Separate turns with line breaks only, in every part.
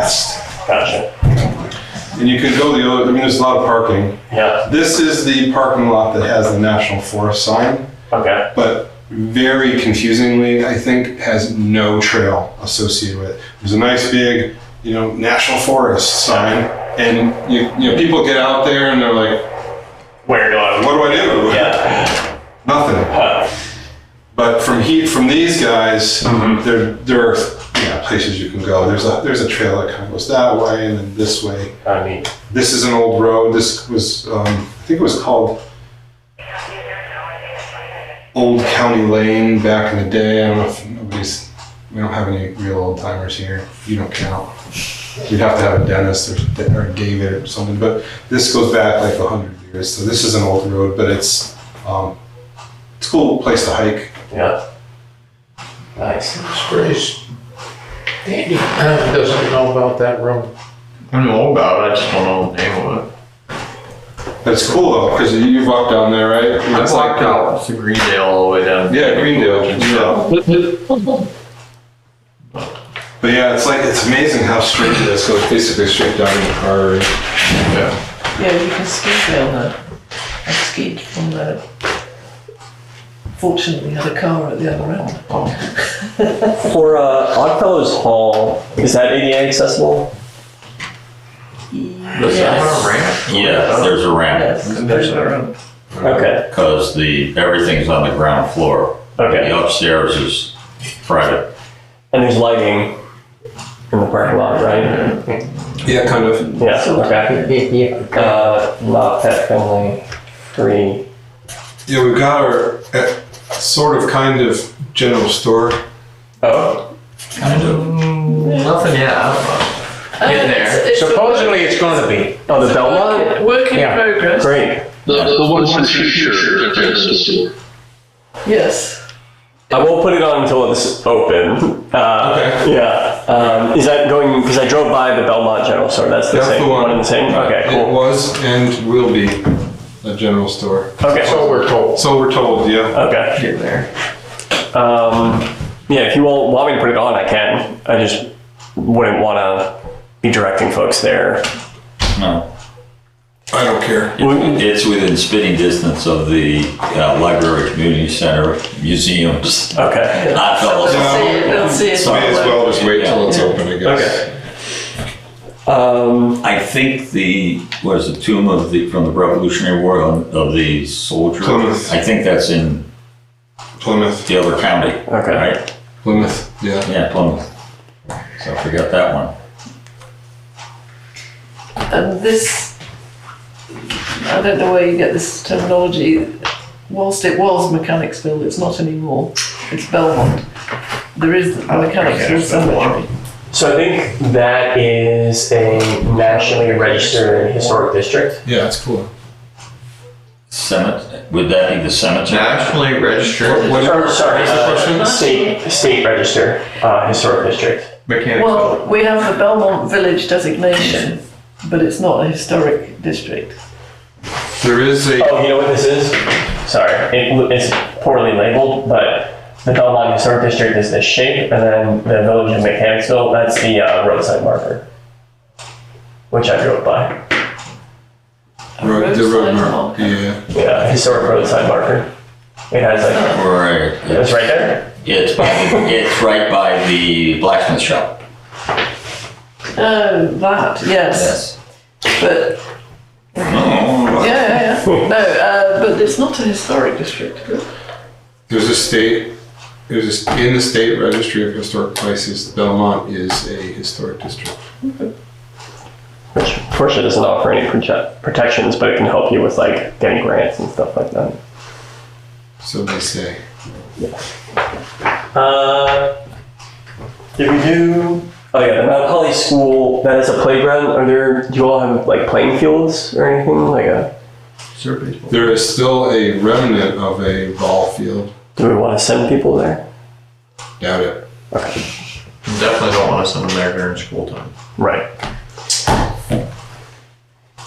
vast.
Gotcha.
And you could go the other, I mean, there's a lot of parking.
Yeah.
This is the parking lot that has the National Forest sign,
Okay.
but very confusingly, I think, has no trail associated with it. There's a nice big, you know, National Forest sign, and you, you know, people get out there and they're like,
Where do I?
what do I do?
Yeah.
Nothing.
Huh.
But from heat, from these guys, there, there are yeah, places you can go. There's a, there's a trail that kind of goes that way and then this way.
I mean,
this is an old road. This was, um, I think it was called Old County Lane back in the day. I don't know if nobody's, we don't have any real old timers here. You don't count. You'd have to have a Dennis or, or David or something, but this goes back like 100 years. So this is an old road, but it's, um, it's a cool place to hike.
yeah. Nice.
Grace, Andy doesn't know about that room.
I know about it, I just don't know the name of it.
But it's cool though, because you, you walked down there, right? I mean, it's like,
uh, It's the Greendale all the way down.
Yeah, Greendale. Yeah. But yeah, it's like it's amazing how straight it is. So it's basically straight down in the car. and-
Yeah.
Yeah, you can ski down that. I skied from there. Fortunately, had a car at the other end.
For uh, Oddfellows Hall, is that ADA accessible?
Does that have a ramp?
Yes, there's a ramp,
Yes, there's a ramp.
Okay.
because the, everything's on the ground floor.
Okay.
The upstairs is private.
And there's lighting in the parking lot, right?
Yeah, kind of.
Yeah. Okay. Uh, not pet friendly. Free.
Yeah, we've got our uh, sort of kind of general store.
Oh.
Kind of. Mm, Nothing yet, I don't know. Getting there.
Supposedly it's gonna be.
Oh, the Belmont.
Work in
Yeah.
progress.
Great.
The, the, ones in the future. that are accessible.
Yes.
I won't put it on until it's open. Uh, Yeah. Um, is that going? Because I drove by the Belmont General Store. That's the
That's
same
the one. Uh,
and the same. Okay.
It
Cool.
was and will be a general store.
Okay.
So Oh, we're told.
So we're told, yeah.
Okay. Getting there. Um, yeah, if you all want me to put it on, I can. I just wouldn't want to be directing folks there.
No.
I don't care.
It's within spitting distance of the uh, library, community center, museums,
Okay.
not
They'll
fellows.
see it, they'll see it.
Sorry.
May as well just wait till it's open, I guess.
Okay. Um,
I think the, what is the tomb of the, from the Revolutionary War of of the soldier?
Plymouth.
I think that's in
Plymouth.
the other county.
Okay.
Right?
Plymouth. Yeah.
Yeah, Plymouth. So I forgot that one.
And this, I don't know where you get this terminology. Whilst it was Mechanicsville, it's not anymore. It's Belmont. There is Mechanicsville cemetery.
so I think that is a nationally registered historic district.
Yeah, it's cool.
Cemetery, would that be the cemetery?
Nationally registered
What-
Or, sorry,
What's the
uh,
question?
state state registered uh, historic district.
mechanical.
Well, we have the Belmont Village designation, but it's not a historic district.
There is a
Oh, you know what this is? Sorry, it, it's poorly labeled, but the Belmont Historic District is this shape, and then the Village of Mechanicsville, that's the uh, roadside marker, which I drove by.
road, the road
roadside
mark.
marker.
Yeah.
Yeah, historic roadside marker. It has like,
Right.
it's right there.
It's by, it's right by the blacksmith shop.
Oh, that, yes. But, yeah,
Oh,
yeah, yeah. No, uh, but it's not a historic district.
There's a state, there's a, in the state registry of historic places, Belmont is a historic district.
Which Porsche doesn't offer any prote- protections, but it can help you with like getting grants and stuff like that.
So they say.
Uh, did we do? Oh yeah, the Mount Holly School. That is a playground. Are there? Do you all have like playing fields or anything like uh, a?
Survey.
There is still a remnant of a ball field.
Do we want to send people there?
Doubt it.
Definitely don't want to send them there during school time.
Right.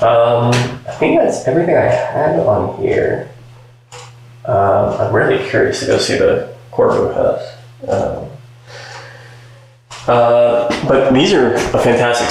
Um, I think that's everything I had on here. Um, I'm really curious to go see the Corvo House. Um, Uh, but these are a fantastic